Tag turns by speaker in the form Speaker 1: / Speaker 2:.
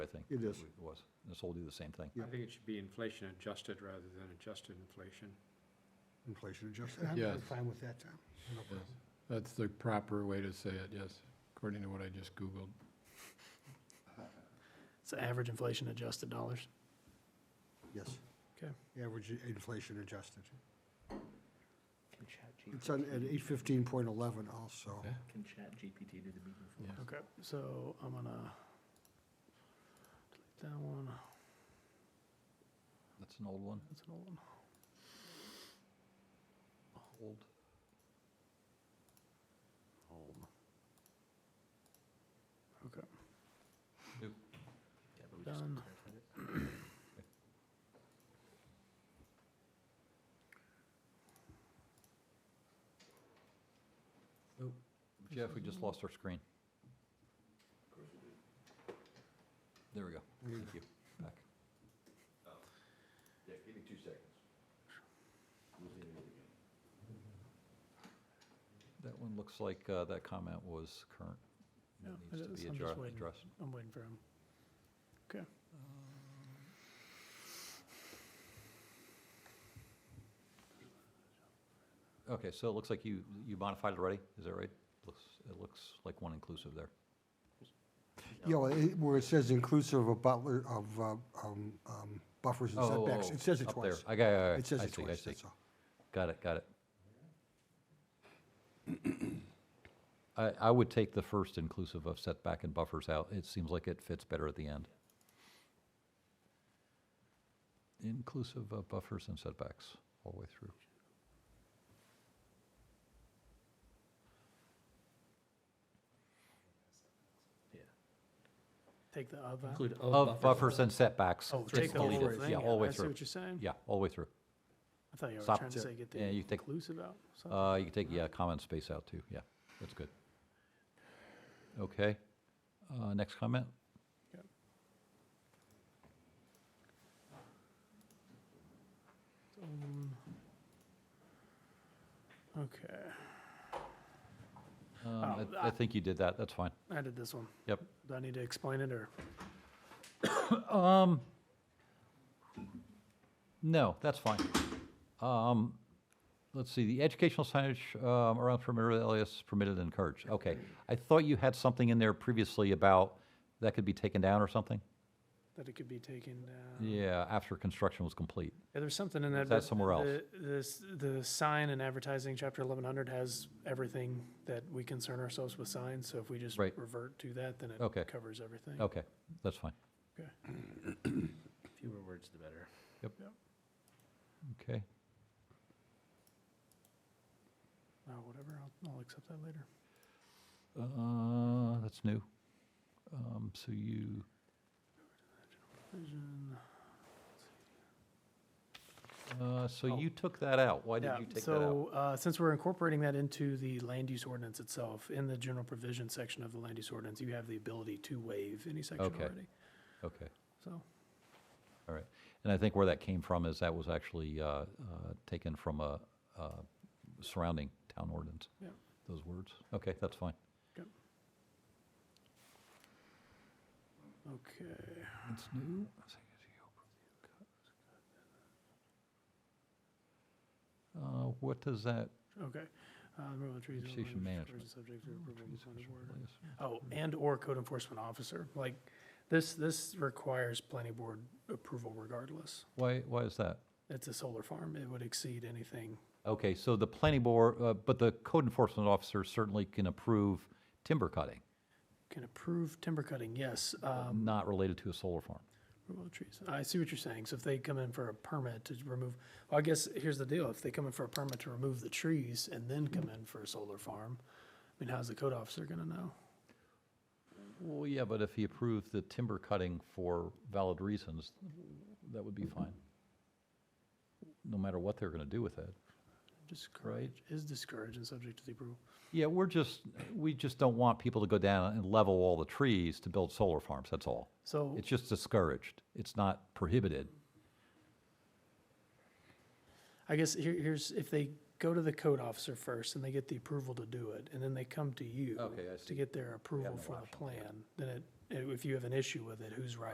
Speaker 1: think.
Speaker 2: It is.
Speaker 1: It was. This will do the same thing.
Speaker 2: Yeah.
Speaker 3: I think it should be inflation adjusted rather than adjusted inflation.
Speaker 2: Inflation adjusted. I'm- I'm
Speaker 4: Yes.
Speaker 2: fine with that, Tom. No problem.
Speaker 4: That's the proper way to say it, yes, according to what I just Googled.
Speaker 5: It's average inflation adjusted dollars.
Speaker 2: Yes.
Speaker 5: Okay.
Speaker 2: Average inflation adjusted. It's on, at eight fifteen point eleven also.
Speaker 4: Yeah.
Speaker 6: Can chat GPT do the meeting for
Speaker 4: Yes.
Speaker 5: Okay, so I'm gonna delete that one.
Speaker 1: That's an old one.
Speaker 5: That's an old one.
Speaker 1: Old.
Speaker 5: Okay,
Speaker 1: New.
Speaker 6: Yeah, but we just
Speaker 5: Done.
Speaker 6: clarified it.
Speaker 1: Jeff, we just lost our screen. There we go. Thank you. Back.
Speaker 7: Yeah, Um, give me two seconds. Losing it again.
Speaker 1: That one looks like uh, that comment was current.
Speaker 5: Yeah,
Speaker 1: It Needs
Speaker 5: it
Speaker 1: to
Speaker 5: is.
Speaker 1: be
Speaker 5: I'm just
Speaker 1: addre-
Speaker 5: waiting.
Speaker 1: addressed.
Speaker 5: I'm waiting for him. Okay.
Speaker 1: Um, Okay, so it looks like you, you modified it already? Is that right? Looks, it looks like one inclusive there.
Speaker 2: Yeah, well, it- where it says inclusive of butler, of, uh, um, um, buffers and
Speaker 1: Oh,
Speaker 2: setbacks,
Speaker 1: oh,
Speaker 2: it says it
Speaker 1: up there.
Speaker 2: twice.
Speaker 1: I got,
Speaker 2: It says
Speaker 1: I
Speaker 2: it
Speaker 1: see, I
Speaker 2: twice,
Speaker 1: see.
Speaker 2: that's all.
Speaker 1: Got it, got it. I, I would take the first inclusive of setback and buffers out. It seems like it fits better at the end. Inclusive of buffers and setbacks all the way through.
Speaker 5: Take the of out.
Speaker 6: Include
Speaker 1: Of buffers and setbacks.
Speaker 5: Oh,
Speaker 1: Just
Speaker 5: take the whole
Speaker 1: delete it.
Speaker 5: thing
Speaker 1: Yeah,
Speaker 5: out.
Speaker 1: all the way
Speaker 5: I see
Speaker 1: through.
Speaker 5: what you're saying.
Speaker 1: Yeah, all the way through.
Speaker 5: I thought you were
Speaker 1: Stop
Speaker 5: trying to
Speaker 1: to-
Speaker 5: say get the
Speaker 1: yeah, you take-
Speaker 5: inclusive out. So
Speaker 1: Uh, you can take, yeah, comment space out too, yeah, that's good. Okay, uh, next comment?
Speaker 5: Yep. Um, Okay,
Speaker 1: Um,
Speaker 5: Oh,
Speaker 1: I I think you did that, that's fine,
Speaker 5: I did this one.
Speaker 1: yep.
Speaker 5: Do I need to explain it or?
Speaker 1: No, that's fine. Um, Let's see, the educational signage um, around perimeter areas permitted and encouraged, okay. I thought you had something in there previously about that could be taken down or something?
Speaker 5: that it could be taken down.
Speaker 1: Yeah, after construction was complete.
Speaker 5: Yeah, there's something in that.
Speaker 1: that
Speaker 5: but
Speaker 1: somewhere else?
Speaker 5: the- This, the sign and advertising, chapter eleven hundred has everything that we concern ourselves with signs, so if we just
Speaker 1: Right.
Speaker 5: revert to that, then
Speaker 1: Okay.
Speaker 5: it covers everything.
Speaker 1: Okay, that's fine,
Speaker 5: Okay.
Speaker 6: Fewer words, the better.
Speaker 1: okay.
Speaker 5: Uh, whatever, I'll, I'll accept that later.
Speaker 1: Uh, That's new. Um, So you,
Speaker 5: Vision.
Speaker 1: Uh, So
Speaker 5: Oh.
Speaker 1: you took that out. Why did
Speaker 5: Yeah,
Speaker 1: you take that out?
Speaker 5: so, uh, since we're incorporating that into the land use ordinance itself, in the general provision section of the land use ordinance, you have the ability to waive any section
Speaker 1: Okay.
Speaker 5: already,
Speaker 1: Okay,
Speaker 5: so.
Speaker 1: all right. And I think where that came from is that was actually uh, uh, taken from a uh, surrounding town ordinance.
Speaker 5: Yeah.
Speaker 1: Those words. Okay, that's fine.
Speaker 5: Okay,
Speaker 1: It's new. Uh, What does that?
Speaker 5: okay. Uh, removal of trees.
Speaker 1: Vegetation
Speaker 5: removal of
Speaker 1: management.
Speaker 5: trees is Subject to approval of the planning board. Oh, and/or code enforcement officer, like, this, this requires planning board approval regardless.
Speaker 1: Why, why is that?
Speaker 5: It's a solar farm, it would exceed anything.
Speaker 1: Okay, so the planning board, uh, but the code enforcement officer certainly can approve timber cutting,
Speaker 5: Can approve timber cutting, yes, um,
Speaker 1: not related to a solar farm.
Speaker 5: removal of trees. I see what you're saying, so if they come in for a permit to remove, well, I guess, here's the deal, if they come in for a permit to remove the trees and then come in for a solar farm, I mean, how's the code officer gonna know?
Speaker 1: Well, yeah, but if he approved the timber cutting for valid reasons, that would be fine. No matter what they're going to do with it.
Speaker 5: Discourage, is discouraged and subject to the approval.
Speaker 1: Yeah, we're just, we just don't want people to go down and level all the trees to build solar farms, that's all.
Speaker 5: So,
Speaker 1: It's just discouraged. It's not prohibited.
Speaker 5: I guess here, here's, if they go to the code officer first and they get the approval to do it, and then they come to you
Speaker 1: Okay, I see.
Speaker 5: to get their approval
Speaker 1: no
Speaker 5: for the
Speaker 1: option, yeah.
Speaker 5: plan, then it, if you have an issue with it, who's right?